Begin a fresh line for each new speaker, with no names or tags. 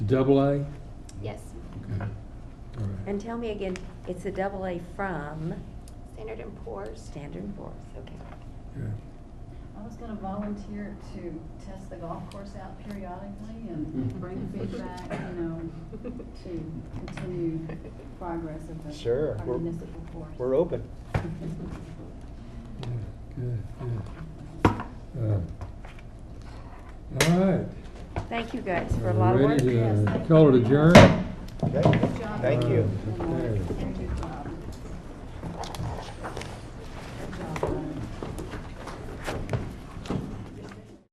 Double A? Okay,
Yes,
all right.
And tell me again, it's a double A from
Standard and Poor's.
Standard and Poor's, okay.
Yeah.
I was gonna volunteer to test the golf course out periodically
Mm-hmm.
and bring feedback, you know, to continue progress of the
Sure,
our
we're-
municipal course.
We're open.
Yeah, Good, good. Um, All right.
Thank you guys for
Are
a
we
lot of work.
Ready
yes,
to
thank
call it
you.
adjourned?
Okay, thank you.
Uh,